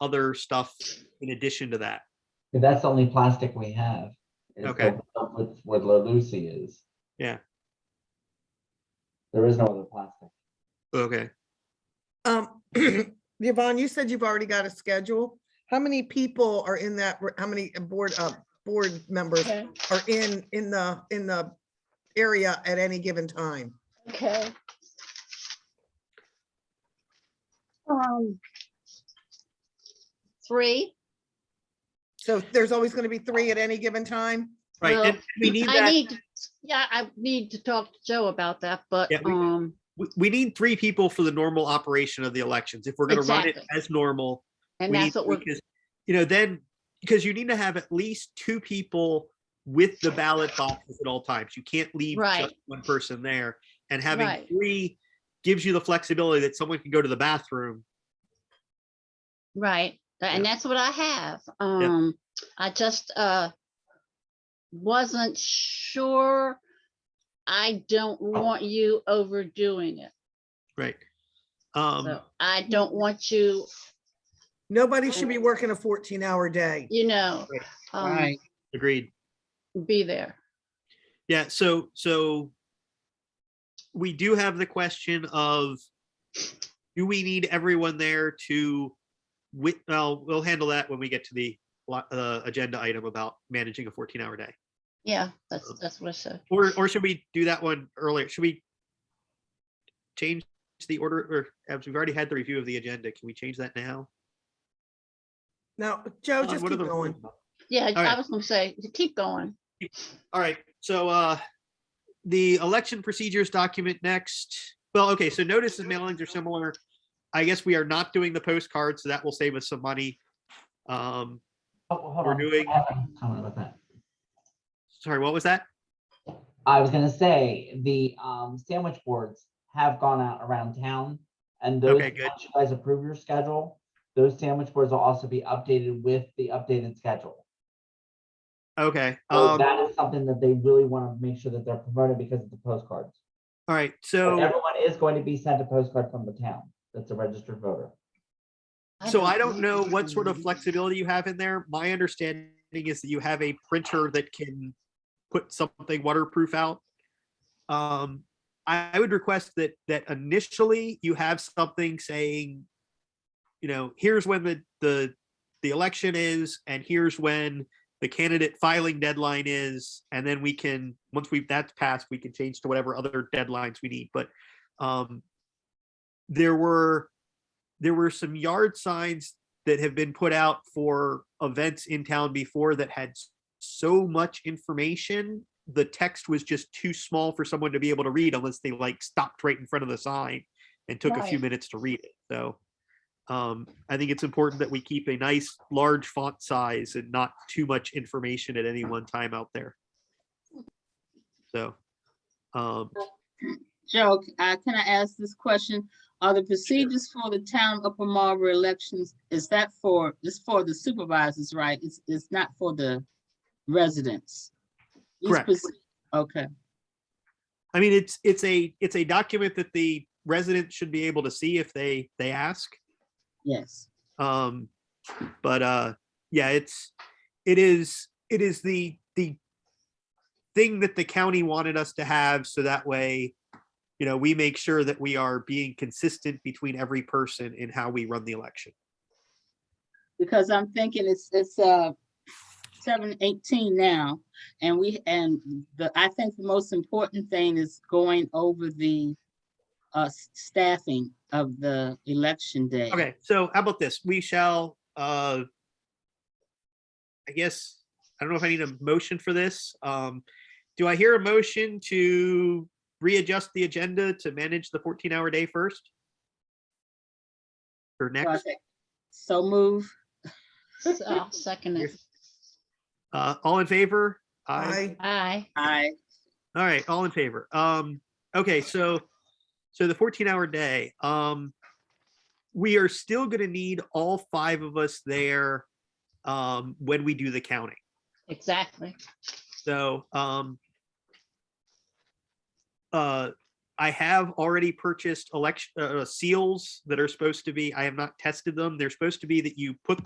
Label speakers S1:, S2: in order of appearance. S1: other stuff in addition to that?
S2: But that's the only plastic we have. is the
S1: Okay.
S2: stuff With what La Lucy is.
S1: Yeah.
S2: There is no other plastic.
S1: Okay.
S3: Um, Yvonne, you said you've already got a schedule. How many people are in that, how many board, uh, board members
S4: Okay,
S3: are in, in the, in the area at any given time?
S4: okay. Um. Three,
S3: So there's always going to be three at any given time?
S1: Right,
S4: Well,
S1: and we need
S4: I
S1: that,
S4: need, yeah, I need to talk to Joe about that, but,
S1: Yeah, we-
S4: um,
S1: we, we need three people for the normal operation of the elections. If we're gonna run it
S4: Exactly.
S1: as normal,
S4: and
S1: We
S4: that's
S1: need-
S4: what we're,
S1: because, You know, then, because you need to have at least two people with the ballot boxes at all times. You can't leave just
S4: Right.
S1: one person there. And having
S4: Right.
S1: three gives you the flexibility that someone can go to the bathroom.
S4: right, and that's what I have. Um, I just, uh, wasn't sure. I don't want you overdoing it.
S1: Right. Um,
S4: So I don't want you,
S3: Nobody should be working a fourteen hour day.
S4: you know, um,
S5: Right,
S1: agreed.
S4: be there.
S1: Yeah, so, so we do have the question of, do we need everyone there to, wit, well, we'll handle that when we get to the, lo- uh, agenda item about managing a fourteen hour day.
S4: Yeah, that's, that's what I said.
S1: Or, or should we do that one earlier? Should we change the order or as we've already had the review of the agenda, can we change that now?
S3: Now, Joe,
S1: Don,
S3: just
S1: what are
S3: keep
S1: the-
S3: going.
S4: Yeah,
S1: All right.
S4: I was gonna say, keep going.
S1: All right, so, uh, the election procedures document next. Well, okay, so notices, mailings are similar. I guess we are not doing the postcards, so that will save us some money. Um,
S2: Oh, well, hold
S1: We're
S2: on.
S1: doing-
S2: I have a Comment about that.
S1: sorry, what was that?
S2: I was gonna say, the um sandwich boards have gone out around town. And those,
S1: Okay, good.
S2: once you guys approve your schedule, those sandwich boards will also be updated with the updated schedule.
S1: Okay,
S2: So
S1: um, all
S2: Oh, that is something that they really want to make sure that they're promoted because of the postcards.
S1: right,
S2: But
S1: so.
S2: Everyone is going to be sent a postcard from the town that's a registered voter.
S1: So I don't know what sort of flexibility you have in there. My understanding is that you have a printer that can put something waterproof out. Um, I, I would request that, that initially you have something saying, you know, here's when the, the, the election is and here's when the candidate filing deadline is. And then we can, once we've, that's passed, we can change to whatever other deadlines we need. But, um, there were, there were some yard signs that have been put out for events in town before that had s- so much information. The text was just too small for someone to be able to read unless they like stopped right in front of the sign and took a few
S4: Right.
S1: minutes to read it. So um, I think it's important that we keep a nice large font size and not too much information at any one time out there. So, um,
S5: Joe, uh, can I ask this question? Are the procedures for the town of Upper Marlboro elections, is that for, it's for the supervisors, right? It's, it's not for the residents? These
S1: Correct.
S5: proce- Okay,
S1: I mean, it's, it's a, it's a document that the residents should be able to see if they, they ask.
S5: yes,
S1: Um, but uh, yeah, it's it is it is the the thing that the county wanted us to have, so that way, you know, we make sure that we are being consistent between every person in how we run the election.
S5: because I'm thinking it's, it's, uh, seven eighteen now, and we, and the, I think the most important thing is going over the, uh, s- staffing of the election day.
S1: Okay, so how about this? We shall. Uh, I guess I don't know if I need a motion for this. Um, do I hear a motion to readjust the agenda to manage the 14-hour day first? Or
S5: So I
S1: next?
S5: think- So move.
S4: So I'll Second it.
S1: Uh, all in favor?
S3: I,
S4: Aye.
S5: Aye.
S1: All right, all in favor. Um, okay, so, so the fourteen hour day, um. We are still gonna need all five of us there, um, when we do the counting,
S4: exactly.
S1: so, um. Uh, I have already purchased election, uh, seals that are supposed to be, I have not tested them. They're supposed to be that you put them.